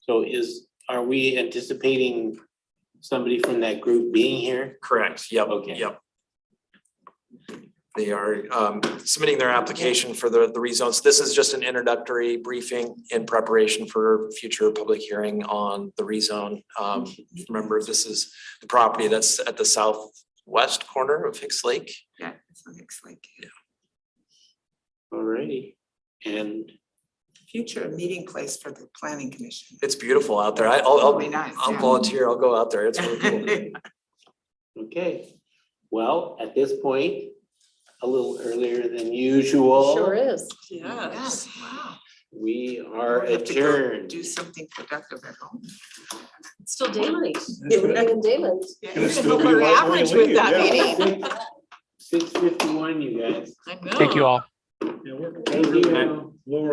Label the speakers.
Speaker 1: So is, are we anticipating somebody from that group being here?
Speaker 2: Correct, yep,
Speaker 1: Okay.
Speaker 2: yep. They are um, submitting their application for the, the rezones. This is just an introductory briefing in preparation for future public hearing on the rezone. Um, Remember, this is the property that's at the southwest corner of Hicks Lake.
Speaker 3: Yeah, it's on Hicks Lake.
Speaker 1: Alrighty, and
Speaker 3: Future meeting place for the planning commission.
Speaker 2: It's beautiful out there. I- I'll,
Speaker 3: Be
Speaker 2: I'll,
Speaker 3: nice.
Speaker 2: I'll
Speaker 3: yeah.
Speaker 2: volunteer, I'll go out there. It's really cool.
Speaker 1: Okay, well, at this point, a little earlier than usual.
Speaker 4: Sure is.
Speaker 3: Yes, wow.
Speaker 1: We are
Speaker 3: We'll have to go
Speaker 1: adjourned.
Speaker 3: Do something productive at home.
Speaker 4: It's still daylight. We're living in daylight.
Speaker 3: Yeah,
Speaker 5: Gonna
Speaker 3: you can
Speaker 5: still
Speaker 3: hope
Speaker 5: be
Speaker 3: we're
Speaker 5: right when we
Speaker 3: average with
Speaker 5: leave,
Speaker 3: that
Speaker 5: yeah.
Speaker 3: meeting.
Speaker 1: Six fifty-one, you guys.
Speaker 3: I
Speaker 6: Thank you
Speaker 3: know.
Speaker 6: all.
Speaker 5: Yeah, we're-
Speaker 1: Thank you.
Speaker 5: Laura